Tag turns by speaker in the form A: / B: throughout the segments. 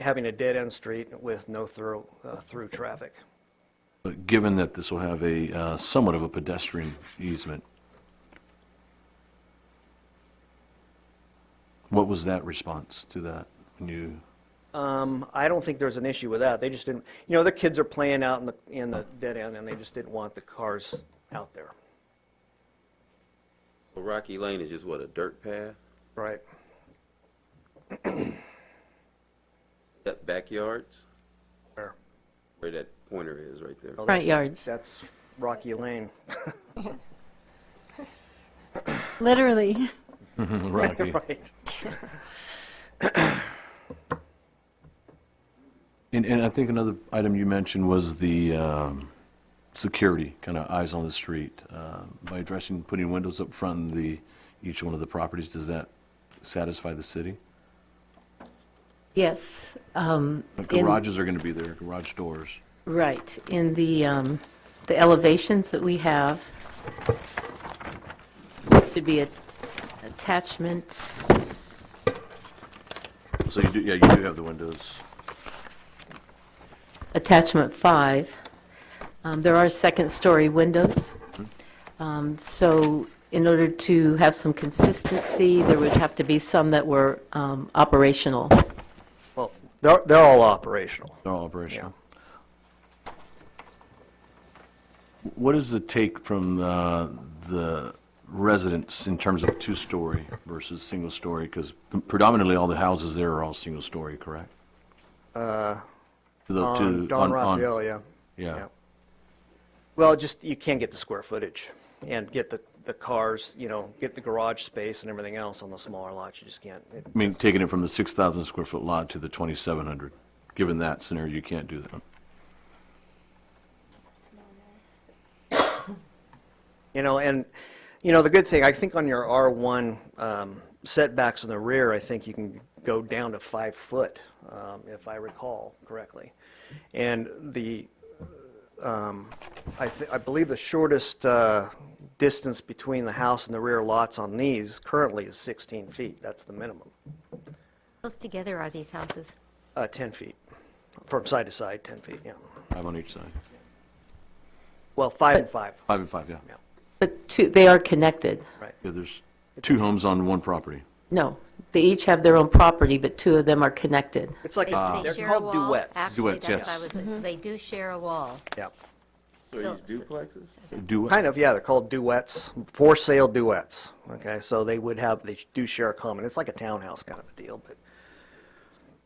A: having a dead-end street with no through, uh, through traffic.
B: But Given that this will have a uh, somewhat of a pedestrian easement, what was that response to that? When you,
A: Um, I don't think there's an issue with that. They just didn't, you know, the kids are playing out in the, in the dead end, and they just didn't want the cars out there.
C: Well, Rocky Lane is just what, a dirt path?
A: Right.
C: That backyards,
A: There.
C: where that pointer is right there.
A: Well,
D: Front
A: that's-
D: yards.
A: That's Rocky Lane.
D: Literally.
B: Rocky,
A: Right.
B: and, and I think another item you mentioned was the um, security, kind of eyes on the street. Uh, By addressing, putting windows up front in the, each one of the properties, does that satisfy the city?
D: Yes. um,
B: Like
D: in-
B: Garages are going to be there, garage doors.
D: Right, in the, um, the elevations that we have, should be a- attachment,
B: So you do, yeah, you do have the windows.
D: attachment five. Um, There are second-story windows. Um, So in order to have some consistency, there would have to be some that were um, operational.
A: Well, they're, they're all operational.
B: They're all operational. What is the take from uh, the residents in terms of two-story versus single-story? Because predominantly, all the houses there are all single-story, correct? To the-
A: Uh, On
B: to-
A: Don
B: on- on-
A: Raphael, yeah.
B: Yeah.
A: Well, just, you can't get the square footage and get the, the cars, you know, get the garage space and everything else on the smaller lots. You just can't. It-
B: I mean, taking it from the 6,000 square foot lot to the 2,700, given that scenario, you can't do that.
A: You know, and, you know, the good thing, I think on your R1 um, setbacks in the rear, I think you can go down to five foot, um, if I recall correctly. And the, um, I thi- I believe the shortest uh, distance between the house and the rear lots on these currently is 16 feet. That's the minimum.
E: Close together are these houses?
A: Uh, 10 feet, from side to side, 10 feet, yeah.
B: Five on each side.
A: Well, five and five,
B: Five and five, yeah.
A: Yeah.
D: But two, they are connected.
A: right.
B: Yeah, there's two homes on one property.
D: No, they each have their own property, but two of them are connected.
A: It's like,
E: They-
A: a-
E: they
A: Ah. they're
E: share a
A: called
E: wall?
A: duets. Mm-hmm.
E: Actually,
B: Duets,
E: that's
B: yes.
E: what I was- so They do share a wall.
A: Yeah.
C: So these duplexes?
B: Do what?
A: Kind of, yeah, they're called duets, for sale duets, okay? So they would have, they do share a common, it's like a townhouse kind of a deal, but,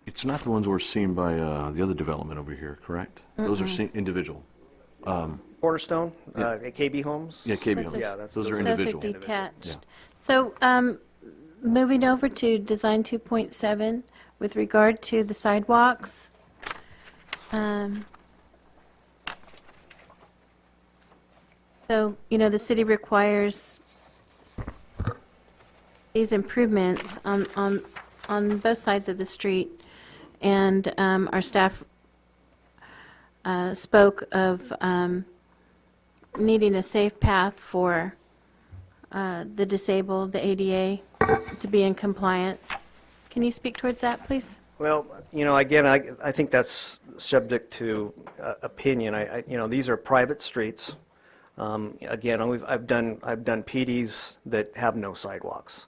B: It's not the ones we're seeing by uh, the other development over here, correct? Those are se- individual.
A: Cornerstone, uh, KB Homes?
B: Yeah, KB
F: Those
B: homes.
F: are-
A: Yeah, that's-
B: Those are
A: those are- Those
B: individual.
F: Those are
B: Yeah.
F: detached. So um, moving over to Design 2.7, with regard to the sidewalks, um, so, you know, the city requires these improvements on, on, on both sides of the street, and um, our staff uh, spoke of um, needing a safe path for uh, the disabled, the ADA, to be in compliance. Can you speak towards that, please?
A: Well, you know, again, I, I think that's subject to uh, opinion. I, I- you know, these are private streets. Um, Again, we've- I've done, I've done PDs that have no sidewalks.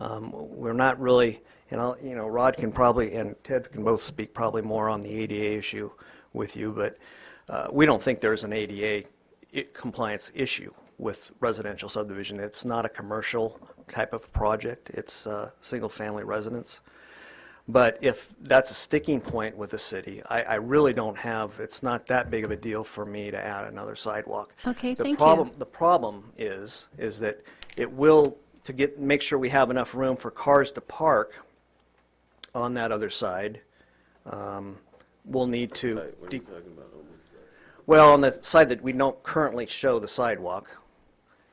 A: Um, We're not really, and I'll, you know, Rod can probably, and Ted can both speak probably more on the ADA issue with you, but uh, we don't think there's an ADA i- compliance issue with residential subdivision. It's not a commercial type of project. It's uh, single-family residence. But if that's a sticking point with the city, I, I really don't have, it's not that big of a deal for me to add another sidewalk.
F: Okay,
A: The
F: thank you.
A: problem- The problem is, is that it will, to get, make sure we have enough room for cars to park on that other side, um, we'll need to,
C: Like, what are
A: de-
C: you talking about? Oh, my God.
A: well, on the side that we don't currently show the sidewalk,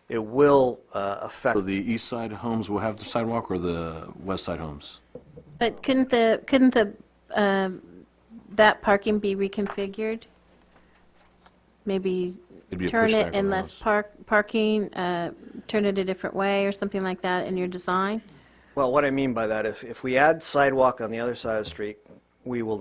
A: it will uh, affect.
B: So the east side homes will have the sidewalk or the west side homes?
F: But couldn't the, couldn't the, um, that parking be reconfigured? Maybe
B: It'd be a
F: turn
B: pushback on
F: it
B: the
F: in less
B: house.
F: park, parking, uh, turn it a different way or something like that in your design?
A: Well, what I mean by that, if, if we add sidewalk on the other side of the street, we will